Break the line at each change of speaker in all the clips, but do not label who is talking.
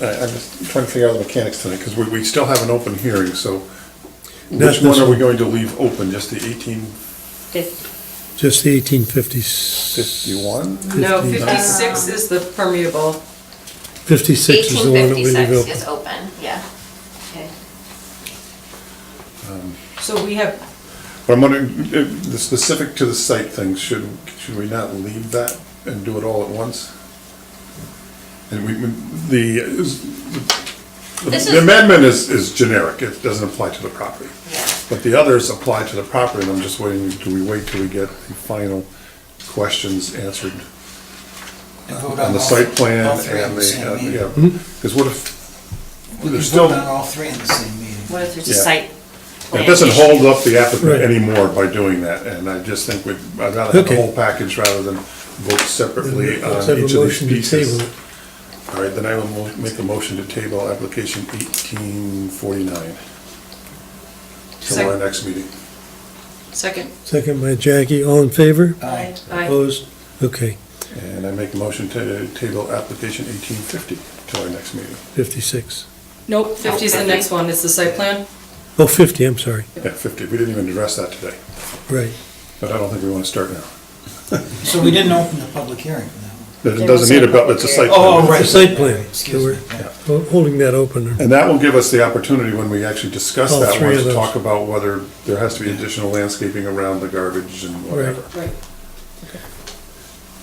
I, I was trying to figure out the mechanics tonight, because we, we still have an open hearing, so
Not
which
this
one are we
one.
going to leave open, just the eighteen
Fif-
Just the eighteen fifty-six.
fifty-one?
No,
15.
fifty-six is the permeable.
Fifty-six is the one that we leave
1856
open.
is open, yeah. Okay.
So we have,
But I'm wondering, uh, the specific to the site thing, should, should we not leave that and do it all at once? And we, we- the, is-
This
the
is-
amendment is, is generic, it doesn't apply to the property.
Yeah.
But the others apply to the property, and I'm just waiting, do we wait till we get the final questions answered
And vote
on the
all-
site plan
all three in
and
the
the,
same
uh,
meeting.
yeah.
Mm-hmm.
Because what if,
We
there's
can
still,
vote on all three in the same meeting.
What if there's a
Yeah.
site?
it doesn't
plan
hold up the applicant
Right.
anymore by doing that, and I just think we'd, I'd rather have the
Okay.
whole package rather than vote separately on
Let's have a
um, each of these
motion to
pieces.
table it.
All right, then I will mo- make a motion to table application eighteen forty-nine till our
Second.
next meeting.
second,
Second by Jackie, all in favor?
Aye.
aye,
Opposed? Okay,
And I make a motion to table application eighteen fifty till our next meeting.
fifty-six.
nope, fifty is the next one, it's the site plan.
Oh, fifty, I'm sorry,
Yeah, fifty, we didn't even address that today,
right.
but I don't think we want to start now.
So we didn't open the public hearing for that one.
It
There
doesn't need a,
was a
bu- it's a site.
Oh,
plan.
right.
The site plan, so
Excuse
we're
me, yeah.
ho- holding that open.
And that will give us the opportunity when we actually discuss
All
that
three
one
of
to
those.
talk about whether there has to be additional landscaping around the garbage and whatever.
Right,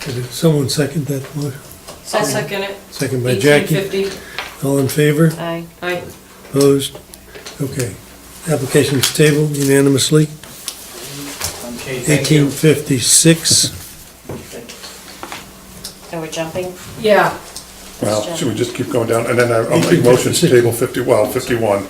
Did Someone second that one?
so I'll second it.
Second by Jackie,
Eighteen fifty,
all in favor?
Aye.
aye.
Opposed? Okay. Application's tabled unanimously.
Okay, thank you.
Eighteen fifty-six.
So we're jumping? uh,
Yeah,
Well, should we just keep going down? And then I- I'll make
18,
motion to
56.
table fifty, well, fifty-one.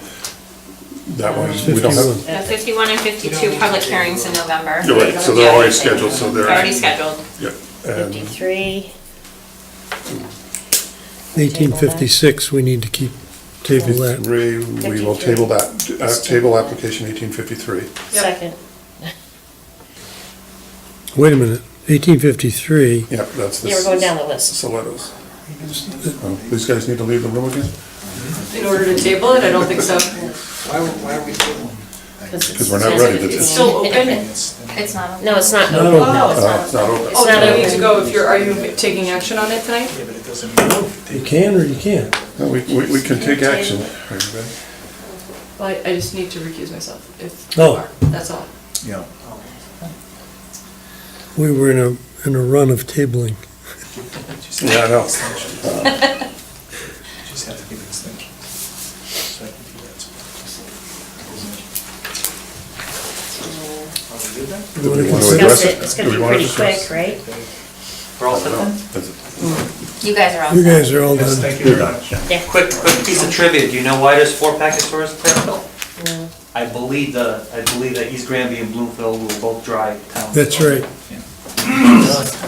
That one, we don't have.
Uh, 51 and 52 public hearings in November.
You're right, so they're already scheduled, so they're.
Already scheduled.
Yep, and
53.
Eighteen fifty-six, we need to keep, table that.
three, we will
53.
table that, uh, table application eighteen fifty-three.
Second.
Wait a minute, eighteen fifty-three,
Yep, that's the.
Yeah, we're going down the list.
Stilettos. Oh, These guys need to leave the room again?
in order to table it, I don't think so.
Why, why are we tabling?
Because we're not ready to.
It's still open.
It's-
It's not.
No, it's not
No,
open.
Oh.
it's
Oh, it's
not.
not open.
Oh,
not
then we need to
open.
go if you're, are you taking action on it tonight?
Yeah, but it doesn't move.
You can or you can't?
No, we, we we can take action. Are you ready?
Well, I- I just need to recuse myself if you
Oh.
are, that's all.
Yeah.
We were in a, in a run of tabling.
Yeah, I know. Uh.
Just have to give extension. So I can do that. Are we good then?
Do we want to address
discuss it, it's gonna
Do
be
we want to
pretty
discuss-
quick, right?
We're all set
No.
then?
Is it-
You guys are all
You
set.
guys are all
Yes,
done.
thank you very
You're
much.
Quick, quick piece of trivia, do you know why there's four package stores in Fairfield?
No.
I believe the, I believe that East Granby and Bloomfield will both dry towns.
That's right.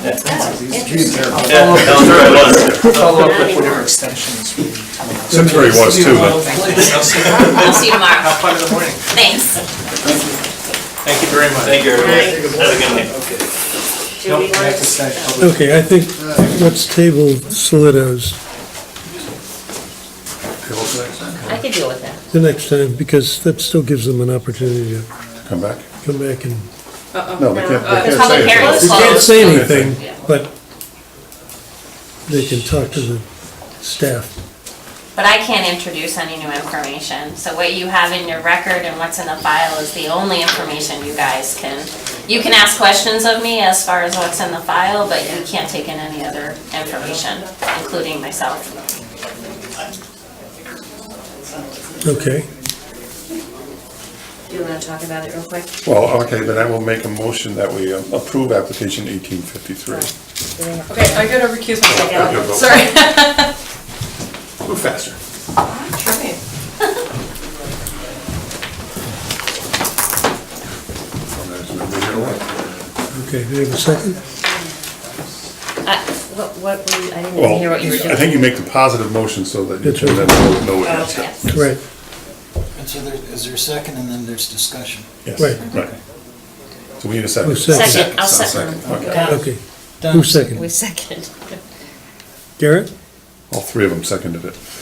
Interesting.
Yeah, that was right, it was.
Follow up with whatever extensions we.
Simsbury was too, but-
Thank
I'll see you tomorrow.
Have fun in the morning.
Thanks.
Thank you very much.
Thank you, everybody.
Right.
Have a good night.
Okay.
Do we
Nope, I have to
want-
say public
Okay, I think, let's table Solitos
Table tonight?
I could deal with that.
the next time, because that still gives them an opportunity to
Come back?
come back and,
No, they can't,
Uh,
they can't
public
say
hearing
it.
is
they can't say
Close.
anything, but they can talk to the staff.
But I can't introduce any new information, so what you have in your record and what's in the file is the only information you guys can, you can ask questions of me as far as what's in the file, but you can't take in any other information, including myself.
Okay,
Do you wanna talk about it real quick?
Well, okay, then I will make a motion that we um, approve application eighteen fifty-three.
Okay, I gotta recuse myself
Yeah, I'll go.
now, sorry.
Move faster.
okay, do we have a second?
Uh, What, what, were you- I didn't even
Well,
hear what you were doing.
I think you make the positive motion so that you
That's
can
right.
then vote no
Oh,
against it.
yes.
Right,
And so there, is there a second, and then there's discussion?
Yes,
Right.
Right. So we need a second.
Who's second?
Second, I'll second.
Okay.
Done.
okay. Who seconded?
We second.
Garrett?
All three of them seconded it.